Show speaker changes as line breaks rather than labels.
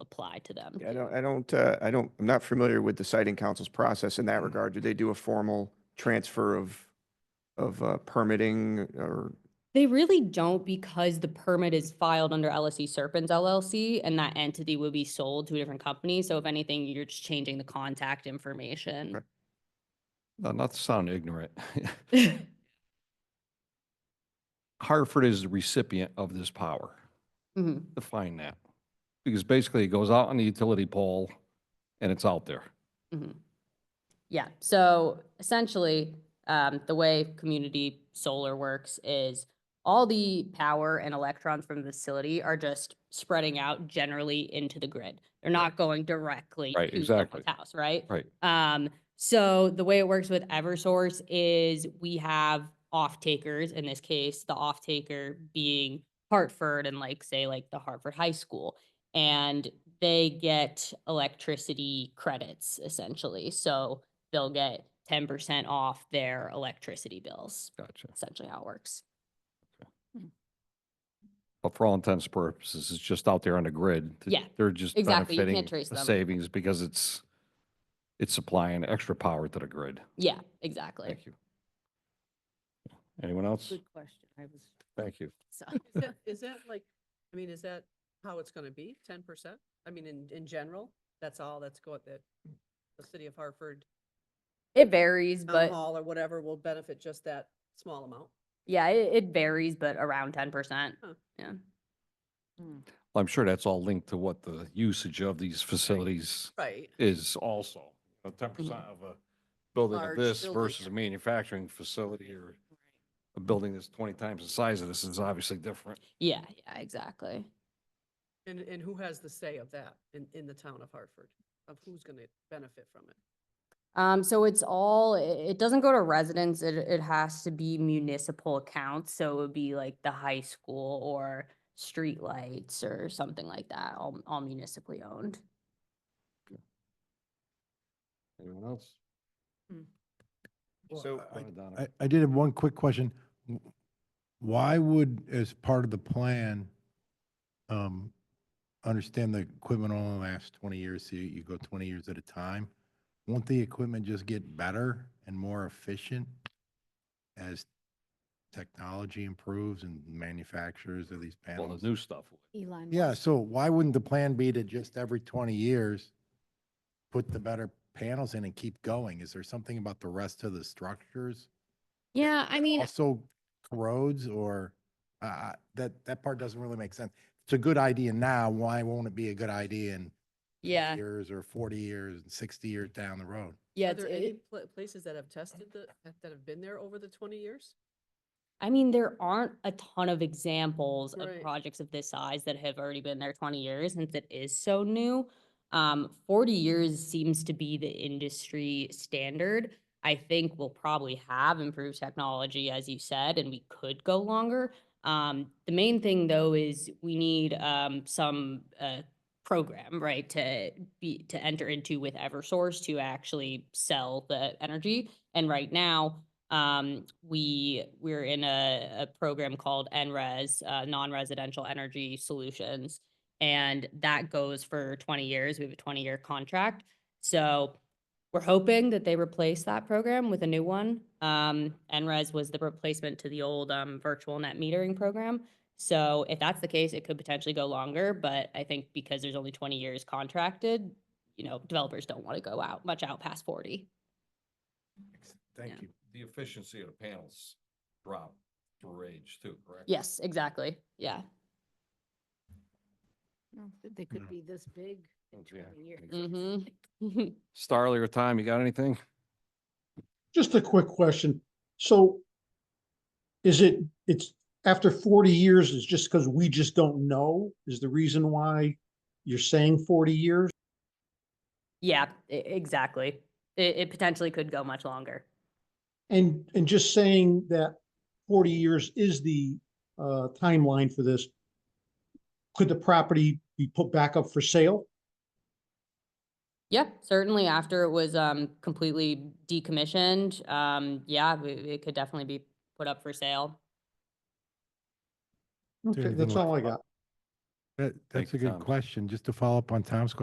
apply to them.
Yeah, I don't, I don't, uh, I don't, I'm not familiar with the siting council's process in that regard. Do they do a formal transfer of, of uh, permitting or?
They really don't because the permit is filed under LSE Serpents LLC and that entity would be sold to a different company. So if anything, you're just changing the contact information.
Right.
No, Not to sound ignorant.
Mhm.
Hartford is the recipient of this power.
Mm-hmm.
Define that. Because basically it goes out on the utility pole and it's out there.
Mhm. Yeah, so essentially, um, the way community solar works is all the power and electrons from the facility are just spreading out generally into the grid. They're not going directly
Right,
to someone's
exactly.
house, right?
Right.
Um, so the way it works with Eversource is we have off takers, in this case, the off taker being Hartford and like, say, like the Hartford High School. And they get electricity credits essentially. So they'll get ten percent off their electricity bills,
Gotcha.
essentially how it works.
But for all intents and purposes, it's just out there on the grid. Th-
Yeah,
They're just
exactly. You can't
benefiting
trace
the
them.
savings because it's, it's supplying extra power to the grid.
Yeah, exactly.
Thank you. Anyone else?
Good question. I was,
Thank you.
so,
Is that- Is that like, I mean, is that how it's gonna be, ten percent? I mean, in, in general, that's all that's going, that the city of Hartford
It varies,
Town
but
Hall or whatever will benefit just that small amount?
yeah, it, it varies, but around ten percent.
Huh.
Yeah.
I'm sure that's all linked to what the usage of these facilities
Right.
is also. Ten percent of a building of
Large
this
building.
versus a manufacturing facility or a building that's twenty times the size of this is obviously different.
Yeah, yeah, exactly.
And, and who has the say of that in, in the town of Hartford, of who's gonna benefit from it?
Um, so it's all, i- it doesn't go to residents, it, it has to be municipal accounts, so it would be like the high school or streetlights or something like that, all, all municipally owned.
Anyone else?
Hmm.
Well,
So.
I- I, I did have one quick question. W- Why would, as part of the plan, um, understand the equipment only lasts twenty years, so you- you go twenty years at a time? Won't the equipment just get better and more efficient as technology improves and manufacturers of these
Well,
panels?
the new stuff.
Elon.
Yeah,
Musk.
so why wouldn't the plan be to just every twenty years, put the better panels in and keep going? Is there something about the rest of the structures?
Yeah, I mean,
also corrodes or, uh, uh, that, that part doesn't really make sense. It's a good idea now, why won't it be a good idea in 20
Yeah,
years or forty years, and sixty years down the road?
yeah,
Are
it's-
there any
it,
pla- places that have tested the, that- that have been there over the twenty years?
I mean, there aren't a ton of examples of
Right.
projects of this size that have already been there twenty years, since it is so new. Um, forty years seems to be the industry standard. I think we'll probably have improved technology, as you said, and we could go longer. Um, the main thing though is we need, um, some, uh, program, right, to be, to enter into with Eversource to actually sell the energy. And right now, um, we, we're in a, a program called NRES, uh, Non-Residential Energy Solutions. And that goes for twenty years. We have a twenty-year contract. So we're hoping that they replace that program with a new one. Um, NRES was the replacement to the old, um, virtual net metering program. So if that's the case, it could potentially go longer, but I think because there's only twenty years contracted, you know, developers don't want to go out, much out past forty.
Thank you.
The efficiency of the panels drop for age too, correct?
Yes, exactly. Yeah.
no, they
No.
could be this big in
Okay,
20 years.
Mhm.
Starley or Tom, you got anything?
Just a quick question. So is it, it's after forty years, it's just because we just don't know is the reason why you're saying forty years?
Yeah, e- exactly. It, it potentially could go much longer.
And, and just saying that forty years is the uh, timeline for this. Could the property be put back up for sale?
Yeah, certainly after it was um completely decommissioned, um, yeah, it, it could definitely be put up for sale.
Okay,
anything
that's
like-
all I got.
That, that's a
Thank you,
good
Tom.
question. Just to follow up on Tom's question.